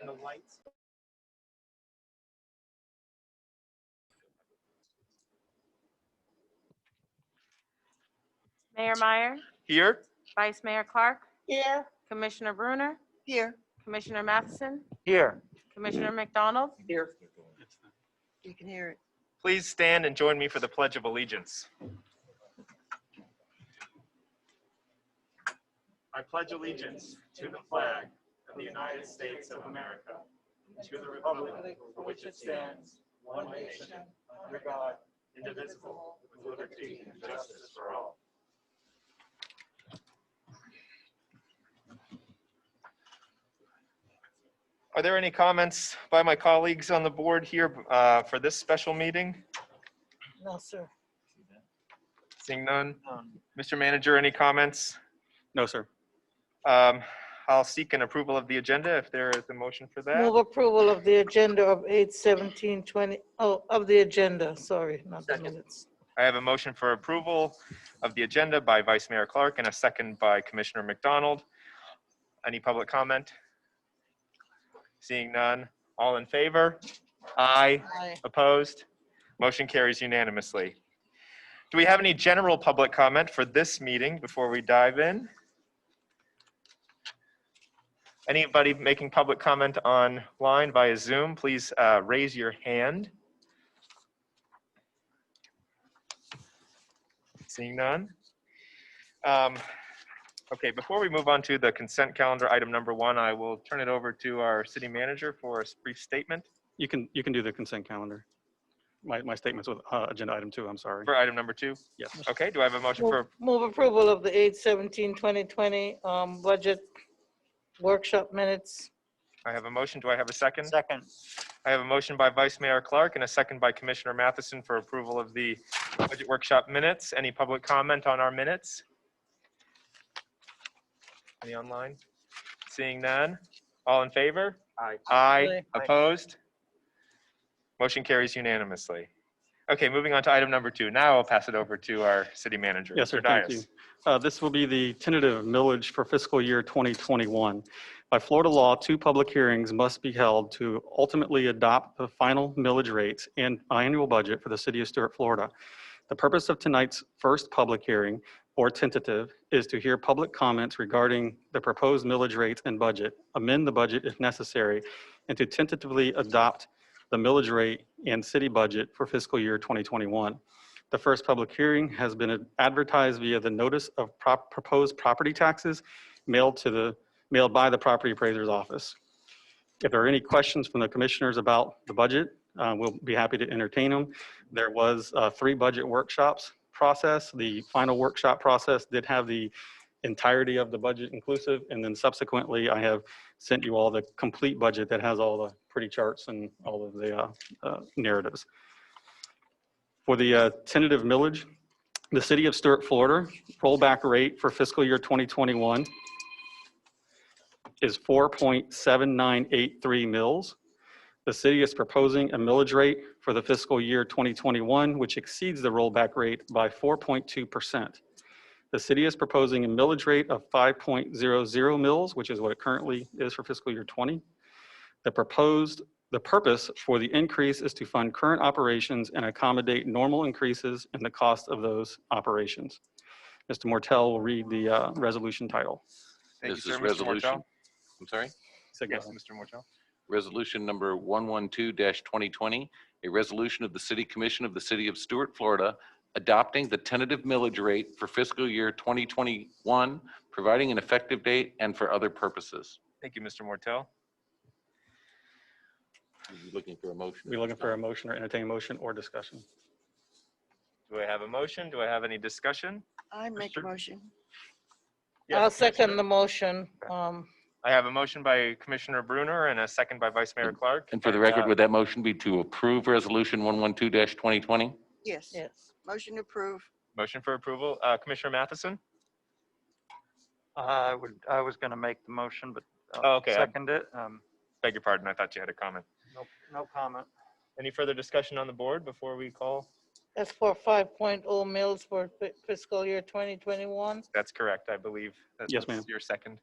and the lights. Mayor Meyer, Here? Vice Mayor Clark, Here. Commissioner Bruner, Here. Commissioner Matheson, Here. Commissioner McDonald. Here. You can hear it. Please stand and join me for the Pledge of Allegiance. I pledge allegiance to the flag of the United States of America, and to the republic for which it stands, one nation, under God, indivisible, with liberty and justice for all. Are there any comments by my colleagues on the board here uh, for this special meeting? No, sir. Seeing none. Mr. Manager, any comments? No, sir. Um, I'll seek an approval of the agenda if there is a motion for that. Move approval of the agenda of eight seventeen twenty, oh, of the agenda, sorry, not the minutes. I have a motion for approval of the agenda by Vice Mayor Clark and a second by Commissioner McDonald. Any public comment? Seeing none. All in favor? Aye. Aye. Opposed? Motion carries unanimously. Do we have any general public comment for this meeting before we dive in? Anybody making public comment online via Zoom, please uh, raise your hand. Seeing none? Um, Okay, before we move on to the consent calendar, item number one, I will turn it over to our city manager for a brief statement You can, you can do the consent calendar. My, my statements with uh, agenda item two, I'm sorry. for item number two. Yes. Okay, do I have a motion Move for, move approval of the eight seventeen twenty twenty, um, budget workshop minutes. I have a motion, do I have a second? Second, I have a motion by Vice Mayor Clark and a second by Commissioner Matheson for approval of the budget workshop minutes. Any public comment on our minutes? Any online? Seeing none? All in favor? Aye. Aye. Aye. Opposed? Motion carries unanimously. Okay, moving on to item number two. Now I'll pass it over to our city manager. Yes, sir, Mr. thank you. Dias. Uh, This will be the tentative millage for fiscal year 2021. By Florida law, two public hearings must be held to ultimately adopt the final millage rates and annual budget for the city of Stuart, Florida. The purpose of tonight's first public hearing, or tentative, is to hear public comments regarding the proposed millage rates and budget, amend the budget if necessary, and to tentatively adopt the millage rate and city budget for fiscal year 2021. The first public hearing has been advertised via the notice of prop- proposed property taxes mailed to the, mailed by the property appraiser's office. If there are any questions from the commissioners about the budget, uh, we'll be happy to entertain them. There was uh, three budget workshops process. The final workshop process did have the entirety of the budget inclusive, and then subsequently, I have sent you all the complete budget that has all the pretty charts and all of the uh, uh, narratives. For the uh, tentative millage, the city of Stuart, Florida rollback rate for fiscal year 2021 is 4.7983 mils. The city is proposing a millage rate for the fiscal year 2021, which exceeds the rollback rate by 4.2%. The city is proposing a millage rate of 5.00 mils, which is what it currently is for fiscal year 20. The proposed the purpose for the increase is to fund current operations and accommodate normal increases in the cost of those operations. Mr. Mortel will read the uh, resolution title. Thank you, This is sir, Mr. resolution. Mortel. I'm sorry? So go Yes, ahead. Mr. Mortel. Resolution number 112-2020, a resolution of the City Commission of the City of Stuart, Florida, adopting the tentative millage rate for fiscal year 2021, providing an effective date and for other purposes. Thank you, Mr. Mortel. You Looking for a motion. We looking for a motion or entertain motion or discussion? Do I have a motion? Do I have any discussion? I make a Mr. motion. Yes, I'll Commissioner. second the motion, um, I have a motion by Commissioner Bruner and a second by Vice Mayor Clark. And for the record, uh, would that motion be to approve Resolution 112-2020? Yes. yes. Motion to approve. Motion for approval, Uh, Commissioner Matheson? Uh, I would, I was going to make the motion, but Oh, I'll okay, I- second it. Um, Beg your pardon, I thought you had a comment. No, no comment. Any further discussion on the board before we call? That's for five mils for fi- fiscal year twenty twenty-one. That's correct, I believe. That Yes, was ma'am. Your second.